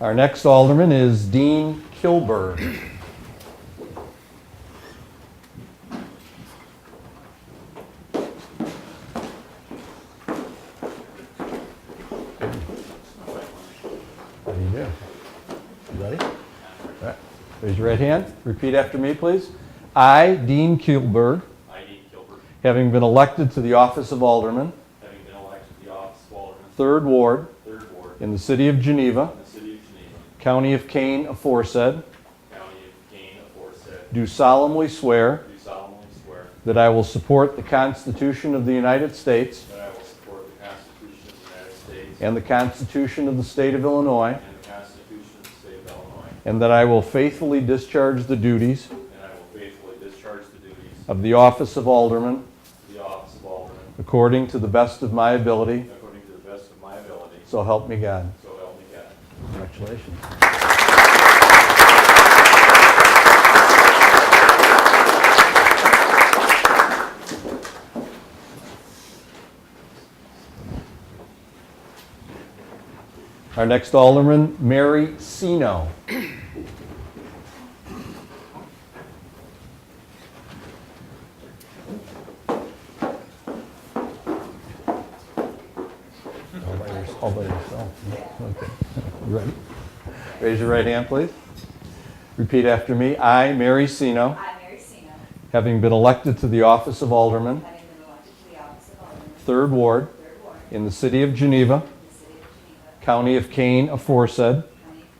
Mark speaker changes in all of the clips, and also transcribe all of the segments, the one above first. Speaker 1: Our next alderman is Dean Kilburg. How do you do? You ready? All right. Raise your right hand. Repeat after me, please. I, Dean Kilburg,
Speaker 2: I, Dean Gilbert,
Speaker 1: having been elected to the office of alderman,
Speaker 2: having been elected to the office of Alderman,
Speaker 1: 3rd Ward,
Speaker 2: Third Ward,
Speaker 1: in the city of Geneva,
Speaker 2: in the city of Geneva,
Speaker 1: county of Kane aforesaid,
Speaker 2: county of Kane, aforesaid,
Speaker 1: do solemnly swear
Speaker 2: do solemnly swear
Speaker 1: that I will support the Constitution of the United States
Speaker 2: that I will support the Constitution of the United States
Speaker 1: and the Constitution of the State of Illinois,
Speaker 2: and the Constitution of the State of Illinois,
Speaker 1: and that I will faithfully discharge the duties
Speaker 2: and I will faithfully discharge the duties
Speaker 1: of the office of alderman
Speaker 2: of the office of Alderman
Speaker 1: according to the best of my ability.
Speaker 2: according to the best of my ability,
Speaker 1: So help me God.
Speaker 2: so help me God.
Speaker 1: Congratulations. Our next alderman, Mary Sino. All by yours- all by yourself. Okay. You ready? Raise your right hand, please. Repeat after me. I, Mary Sino,
Speaker 3: I, Mary Sino,
Speaker 1: having been elected to the office of alderman,
Speaker 3: having been elected to the office of Alderman,
Speaker 1: 3rd Ward,
Speaker 3: Third Ward, in
Speaker 1: in the city of Geneva,
Speaker 3: the city of Geneva,
Speaker 1: county of Kane aforesaid,
Speaker 3: county of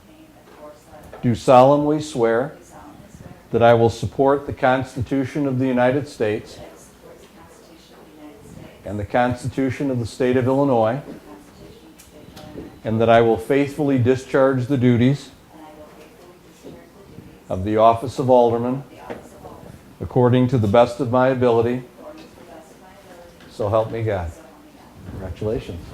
Speaker 3: Kane, aforesaid,
Speaker 1: do solemnly swear
Speaker 3: do solemnly swear
Speaker 1: that I will support the Constitution of the United States
Speaker 3: that I will support the Constitution of the United States
Speaker 1: and the Constitution of the state of Illinois,
Speaker 3: and the Constitution of the State of Illinois,
Speaker 1: and that I will faithfully discharge the duties
Speaker 3: and I will faithfully discharge the duties of
Speaker 1: of the office of alderman
Speaker 3: the office of Alderman
Speaker 1: according to the best of my ability,
Speaker 3: according to the best of my ability,
Speaker 1: so help me God.
Speaker 3: so help me God.
Speaker 1: Congratulations.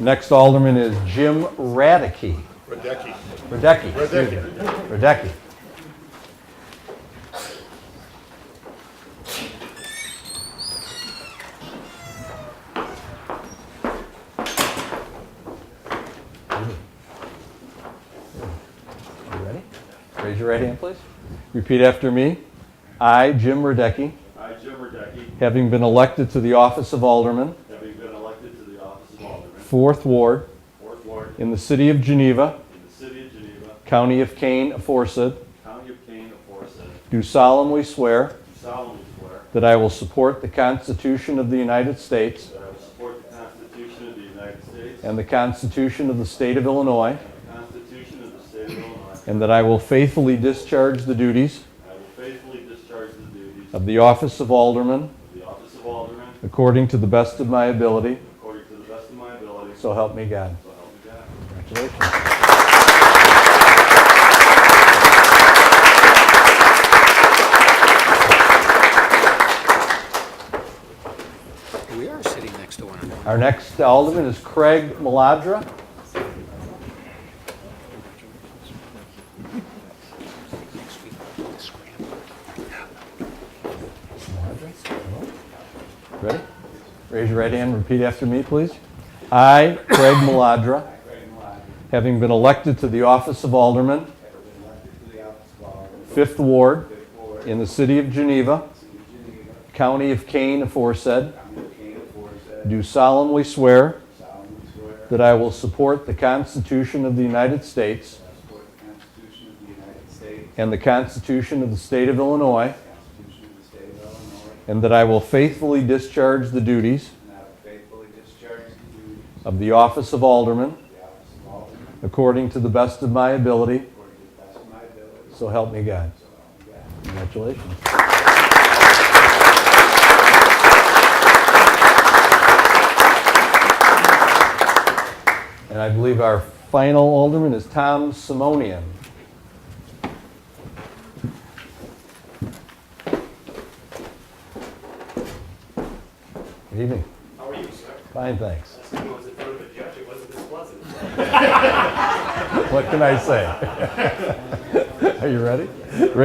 Speaker 1: Next alderman is Jim Radecki.
Speaker 4: Radecki.
Speaker 1: Radecki. excuse me. Radecki. You ready? Raise your right hand, please. Repeat after me. I, Jim Radecki,
Speaker 2: I, Jim Radecki,
Speaker 1: having been elected to the office of alderman,
Speaker 2: having been elected to the office of Alderman,
Speaker 1: fourth ward,
Speaker 2: Fourth Ward,
Speaker 1: in the city of Geneva,
Speaker 2: in the city of Geneva,
Speaker 1: county of Kane, aforesaid,
Speaker 2: county of Kane, aforesaid,
Speaker 1: do solemnly swear
Speaker 2: do solemnly swear
Speaker 1: that I will support the Constitution of the United States
Speaker 2: That I will support the Constitution of the United States.
Speaker 1: and the Constitution of the State of Illinois,
Speaker 2: and the Constitution of the State of Illinois.
Speaker 1: and that I will faithfully discharge the duties
Speaker 2: And I will faithfully discharge the duties of
Speaker 1: of the office of alderman
Speaker 2: the office of Alderman
Speaker 1: according to the best of my ability,
Speaker 2: according to the best of my ability. So
Speaker 1: so help me God.
Speaker 2: help me God.
Speaker 1: Congratulations.
Speaker 5: We are sitting next to one another.
Speaker 1: Our next alderman is Craig Maladra.
Speaker 5: Next week, we'll scramble.
Speaker 1: Ready? Raise your right hand and repeat after me, please. I, Craig Maladra,
Speaker 6: Craig Maladra,
Speaker 1: having been elected to the office of alderman,
Speaker 6: having been elected to the office of Alderman,
Speaker 1: 5th Ward,
Speaker 6: fifth ward,
Speaker 1: in the city of Geneva,
Speaker 6: city of Geneva,
Speaker 1: county of Kane aforesaid,
Speaker 6: county of Kane, aforesaid,
Speaker 1: do solemnly swear
Speaker 6: solemnly swear that
Speaker 1: that I will support the Constitution of the United States
Speaker 6: I support the Constitution of the United States,
Speaker 1: and the Constitution of the State of Illinois,
Speaker 6: the Constitution of the State of Illinois,
Speaker 1: and that I will faithfully discharge the duties
Speaker 6: and I will faithfully discharge the duties
Speaker 1: of the office of alderman
Speaker 6: of the office of Alderman
Speaker 1: according to the best of my ability,
Speaker 6: according to the best of my ability,
Speaker 1: so help me God.
Speaker 6: so help me God.
Speaker 1: Congratulations. And I believe our final alderman is Tom Simonian. Good evening.
Speaker 7: How are you, sir?
Speaker 1: Fine, thanks.
Speaker 7: Last time I was in front of a judge, it wasn't this pleasant.
Speaker 1: What can I say? Are you ready?